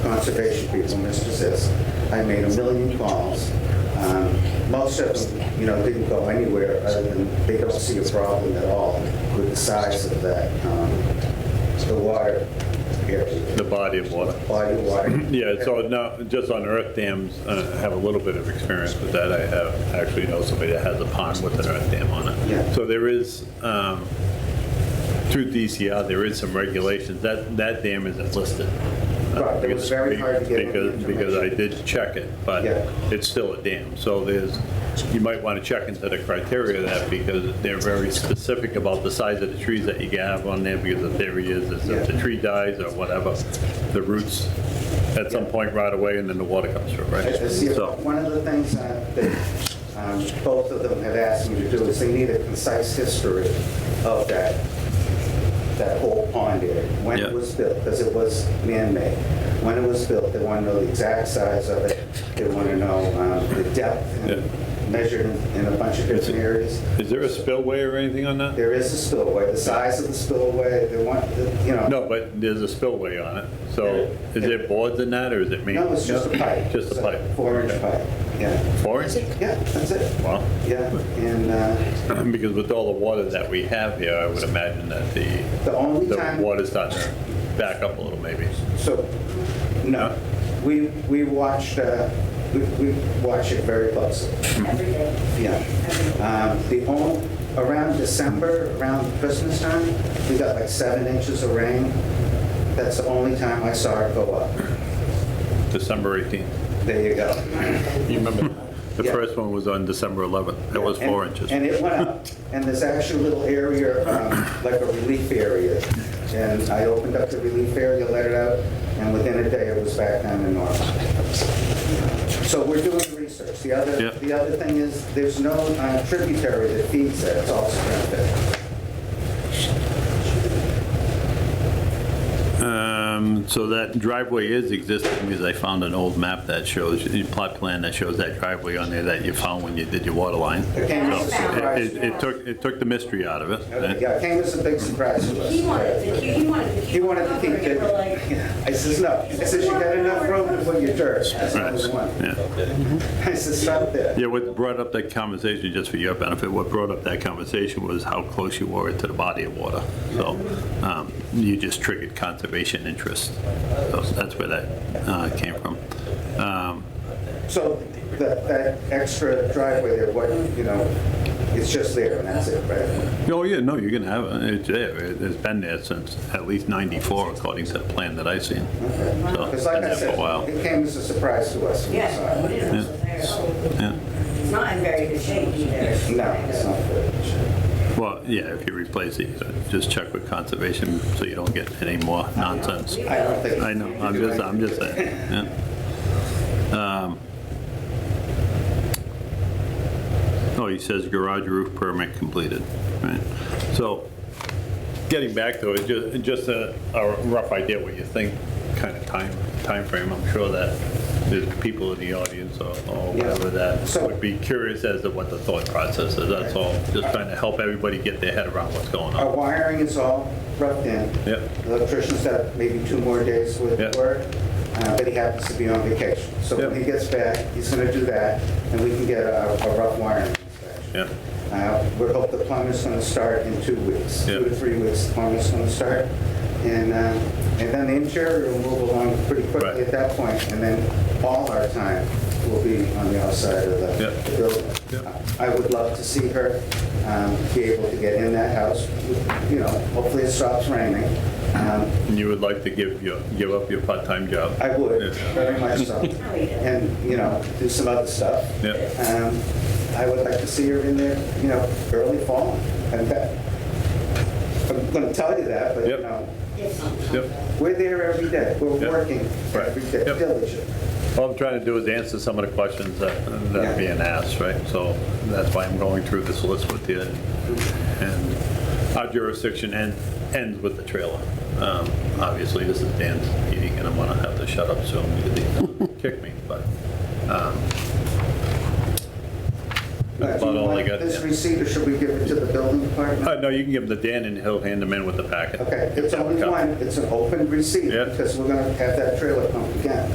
conservation people, Mr. Sis. I made a million calls. Um, Most of them, you know, didn't go anywhere other than they don't see a problem at all with the size of that, um, the water area, the body of water. body of water. Yeah, so now, just on earth dams, uh, I have a little bit of experience with that. I have, actually know somebody that has a pond with an earth dam on Yeah. it. So there is, um, through DCR, there is some regulations. That, that dam isn't listed. Uh, Right, it was very hard to get any Because, because I did check it, but Yeah. it's still a dam. So there's, you might want to check into the criteria of that because they're very specific about the size of the trees that you can have on there because the theory is, is if the Yeah. tree dies or whatever, the roots at some point right away and then the water comes through, right? Uh, see, So, One of the things uh, that um, both of them have asked me to do is they need a concise history of that, that whole pond area. When it Yeah. was built, because it was man-made. When it was built, they want to know the exact size of it. They want to know um, the depth and measured in a bunch of different areas. is there a spillway or anything on that? There is a spillway, the size of the spillway, they want, the- you know. No, but there's a spillway on it. So is there boards in that or is it me? No, it's just a pipe. Just a pipe. Four-inch pipe, yeah. Four inch? Yeah, that's it. Wow. Yeah, and uh, Because with all the water that we have here, I would imagine that the, the only the time... water's starting to back up a little maybe. So, no, we, we watched, uh, we, we watch it very closely, every day. yeah. Um, The only, around December, around Christmas time, we got like seven inches of rain. That's the only time I saw it go up. December 18th. There you go. You remember? The Yeah. first one was on December 11th. That was And- four inches. And it went up, and there's actually a little area, um, like a relief area. And I opened up the relief area, let it out, and within a day, it was back down to normal. So we're doing research. The Yeah. other, the other thing is, there's no uh, tributary that feeds that, it's all spring Um, So that driveway is existing because I found an old map that shows, a plot plan that shows that driveway on there that you found when you did your water line. It came as a So It surprise. it- it took, it took the mystery out of it. Yeah, it came as a big surprise to us. He wanted to, he wanted to. He wanted to keep it. it. We're like, I says, no. I says, you got enough room to put your dirt. That's Right. number one. Yeah. I says, stop there. Yeah, what brought up that conversation, just for your benefit, what brought up that conversation was how close you were to the body of water. So um, you just triggered conservation interest. So that's where that uh, came from. Um, So that, that extra driveway there, what, you know, it's just there and that's it, right? Oh, yeah, no, you can have it. It's there. It- It's been there since at least 94, according to the plan that I've seen. So it's Because been like I there for a said, while. it came as a surprise to us. when we yeah, saw what it. is it? Yeah. It's not in very good shape either. No, it's not good. Well, yeah, if you replace it, so just check with conservation so you don't get any more nonsense. I don't think. I know, I'm just, I'm just saying, yeah. Um, Oh, he says garage roof permit completed, right? So, getting back to it, ju- just a a rough idea what you think, kind of time, timeframe, I'm sure that there's people in the audience or or Yeah. whatever that So- would be curious as to what the thought process is, that's all. Just trying to help everybody get their head around what's going Our on. wiring is all roughed in. Yep. The Electrician's got maybe two more days with Yep. work, uh, but he happens to be on vacation. So when Yep. he gets back, he's gonna do that and we can get a a rough wiring inspection. Yeah, Uh, We hope the plumber's going to start in two weeks, two Yeah. to three weeks, the plumber's going to start. And, uh, and then the interior will move along pretty Right. quickly at that point, and then all our time will be on the outside of Yeah. the- the Yeah. building. I would love to see her um, be able to get in that house, you know, hopefully it stops raining. Um, and you would like to give your, give up your part-time job? I would, Yeah. very much so. And, you know, do some other stuff. Yeah. Um, I would like to see her in there, you know, early fall. And that, I'm going to tell you that, but, you Yep. know, Yep. we're there every day. We're Yep. working Right. every day Yep. diligently. All I'm trying to do is answer some of the questions that, that are being asked, right? So that's why I'm going through this list with you. And our jurisdiction end, ends with the trailer. Um, Obviously, this is Dan's meeting, and I'm gonna have to shut up soon because he's gonna kick me, but um, Now, that's do you about all I want got. This Dan. receipt, or should we give it to the building department? Uh, No, you can give them to Dan and he'll hand them in with the packet. Okay, it's Yeah, only okay. one, it's an open receipt Yep. because we're going to have that trailer pumped again.